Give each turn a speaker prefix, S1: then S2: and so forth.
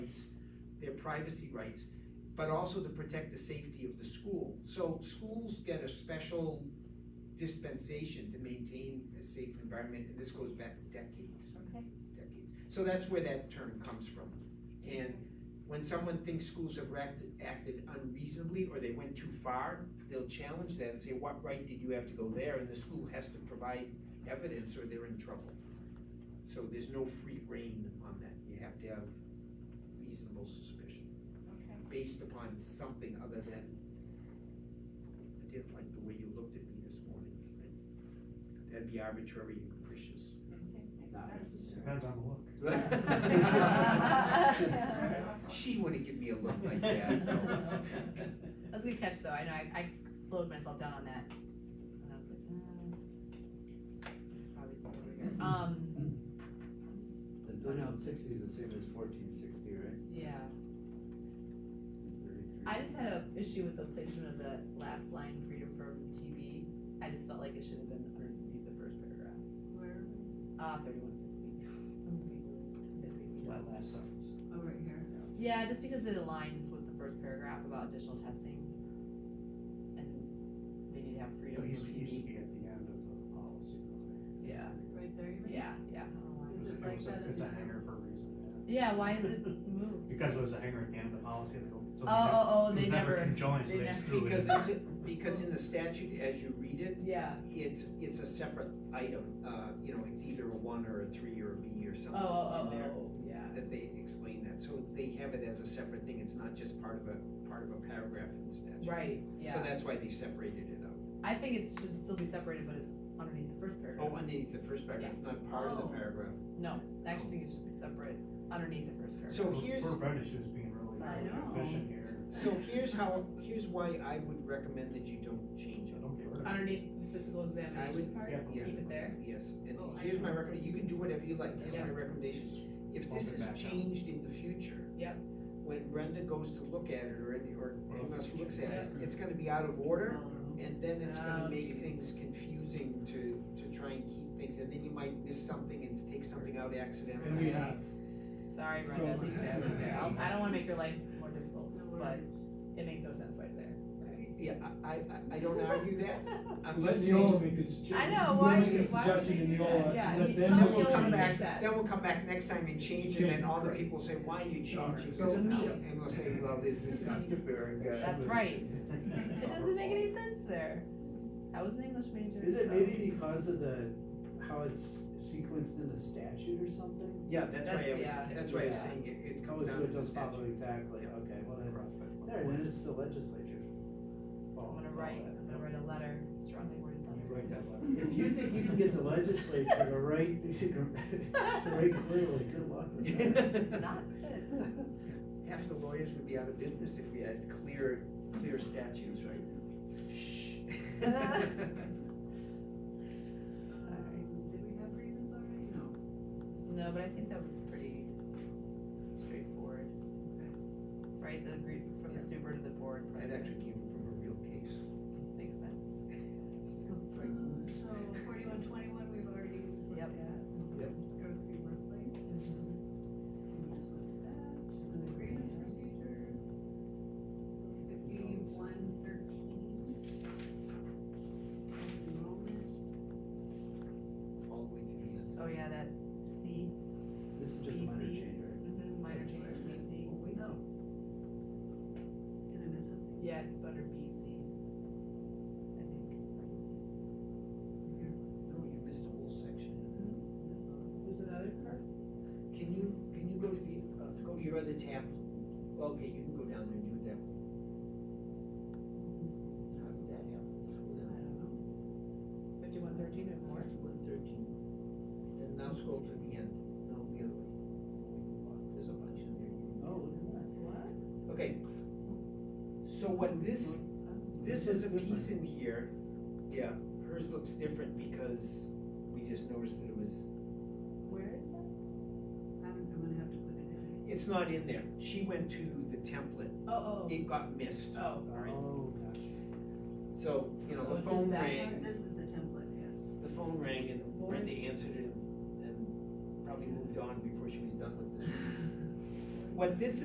S1: their privacy rights, but also to protect the safety of the school. So schools get a special dispensation to maintain a safe environment, and this goes back decades,
S2: Okay.
S1: decades. So that's where that term comes from. And when someone thinks schools have acted, acted unreasonably or they went too far, they'll challenge that and say, what right did you have to go there? And the school has to provide evidence or they're in trouble. So there's no free rein on that. You have to have reasonable suspicion
S2: Okay.
S1: based upon something other than, I didn't like the way you looked at me this morning. right? That'd be arbitrary and capricious.
S2: Makes sense.
S3: Depends on the look.
S1: She wouldn't give me a look like that, no.
S2: That was a good catch though, I know, I, I slowed myself down on that, and I was like, uh, this is probably something we're gonna- um,
S4: The thirty-one sixty is the same as fourteen sixty, right?
S2: yeah.
S4: Thirty-three.
S2: I just had a issue with the placement of the last line, freedom from TV, I just felt like it should have been underneath the first paragraph.
S5: Where,
S2: Ah, thirty-one sixteen.
S4: That last sentence.
S5: oh, right here.
S2: Yeah, just because it aligns with the first paragraph about additional testing, and they need to have
S4: It
S2: freedom
S4: used
S2: from
S4: to used to
S2: TV,
S4: be at the end of the policy.
S2: yeah,
S5: Right there, you mean?
S2: yeah, yeah, I don't know why.
S5: Is it
S3: It
S5: like
S3: was a-
S5: that in
S3: It's a
S5: the-
S3: hanger for a reason,
S2: Yeah, why is it moved?
S3: yeah. Because it was a hanger at the end of the policy, they,
S2: Oh,
S3: so they never-
S2: oh,
S3: it
S2: oh,
S3: was
S2: they never,
S3: conjoined, so
S2: they
S3: they just threw it.
S1: Because
S3: in.
S1: it's, because in the statute, as you read it,
S2: yeah,
S1: it's, it's a separate item, uh, you know, it's either a one or a three or a B or
S2: oh,
S1: something
S2: oh,
S1: in
S2: oh,
S1: there.
S2: oh, yeah,
S1: That they explain that, so they have it as a separate thing, it's not just part of a, part of a paragraph in the statute.
S2: right,
S1: So
S2: yeah.
S1: that's why they separated it out.
S2: I think it should still be separated, but it's underneath the first
S1: Oh,
S2: paragraph.
S1: underneath the first paragraph, not part of the
S5: Oh.
S1: paragraph.
S2: No, I actually think it should be separate underneath the first paragraph.
S1: So
S3: Poor-
S1: here's,
S3: Poor Brenda, she was being really
S5: I know.
S3: really efficient here.
S1: so here's how, here's why I would recommend that you don't change
S3: I
S1: it.
S3: don't get rid of it.
S2: Underneath the physical
S1: I
S2: examination
S1: would-
S2: part,
S1: yeah.
S2: keep it there,
S1: Yes, and
S5: Oh, I
S1: here's
S5: know.
S1: my recommend, you can do whatever you like, here's my
S2: Yeah.
S1: recommendation. If
S3: Bump
S1: this
S3: it
S1: is
S3: back up.
S1: changed in the future.
S2: Yep.
S1: When Brenda goes to look at it or any, or
S3: Well,
S1: anyone else who looks at it,
S3: yeah.
S1: it's gonna be out of order. And then it's gonna
S2: Oh,
S1: make
S2: geez.
S1: things confusing to, to try and keep things, and then you might miss something and take something out accidentally.
S6: And we have,
S2: sorry,
S6: So-
S2: Brenda, leave that in there, I'll- I don't wanna make your life more difficult,
S5: No
S2: but
S5: worries.
S2: it makes no sense why it's there.
S1: Yeah, I, I, I- I don't argue that, I'm
S6: let
S1: just saying.
S6: Neola make the suggestion.
S2: I know, why,
S6: We'll make a
S2: why would
S6: suggestion
S2: they
S6: to
S2: do that?
S6: Neola,
S2: Yeah,
S6: and let
S2: he-
S6: them. make
S1: Then
S2: tell
S1: we'll
S6: the
S2: Neola
S6: change.
S1: come
S2: to
S1: back,
S2: fix that.
S1: then we'll come back next time and change, and then all the
S2: Right.
S1: people say, why are you changing
S6: Right.
S1: this
S6: So
S2: we
S1: now?
S2: need-
S1: And we'll say, well, there's this Cedarburg, uh,
S2: That's right. It doesn't make any sense there. I was an English major.
S4: Is it
S2: so-
S4: maybe because of the, how it's sequenced in the statute or something?
S1: yeah, that's why I
S2: That's-
S1: was,
S2: yeah.
S1: that's why I was
S4: Yeah.
S1: saying it, it
S4: Oh,
S1: comes
S4: so
S1: down to the
S4: it does follow
S1: statute.
S4: exactly, okay, well then, there, then it's the legislature.
S2: I'm gonna write, I'm gonna write a letter, strongly worded letter.
S3: Write that letter.
S4: If you think you can get the legislature to write, to write clearly, good luck with that.
S2: Not good.
S1: Half the lawyers would be out of business if we had clear, clear statutes, right?
S5: Um, Did we have grievance already? No.
S2: No, but I think that was pretty straightforward. Right, the group from the
S1: Yeah.
S2: super to the board.
S1: That actually came from a real case.
S2: Makes sense.
S1: It's like,
S5: Um,
S1: oops.
S5: So forty-one twenty-one, we've already looked
S2: Yep.
S5: at. Drug-free workplace. We just looked at that.
S2: It's an
S5: Grievance
S2: agreement.
S5: procedure. So fifty-one thirteen. Enrollment.
S1: All the way to the end.
S2: Oh, yeah, that C,
S4: This is just a minor
S2: PC.
S4: change, right?
S2: mhm, minor change, BC.
S5: Oh, wait, no. Did I miss something
S2: Yeah, it's better BC. I think.
S5: here?
S1: No, you missed a whole section.
S5: This one.
S2: There's another part?
S1: Can you, can you go to the, uh, go to your other tab? Okay, you can go down there and do that. How did that happen? Scroll
S5: I
S1: down
S5: don't know.
S2: Fifty-one thirteen, there's more?
S1: to one thirteen. And now scroll to the end, no, the other way. There's a bunch in there.
S4: Oh, look at that.
S2: What?
S1: Okay. So when this, this is a piece in here, yeah, hers looks different because we just noticed that it was,
S2: Where is that?
S5: I'm, I'm gonna have to put it in.
S1: it's not in there. She went to the template,
S2: Oh,
S1: it got missed.
S2: oh, oh.
S4: Oh, gotcha.
S1: So, you know,
S2: So
S1: the
S2: just
S1: phone
S2: that
S1: rang,
S2: part?
S5: This is the template, yes.
S1: the phone rang and Brenda answered it and probably moved on before she was done with this. What this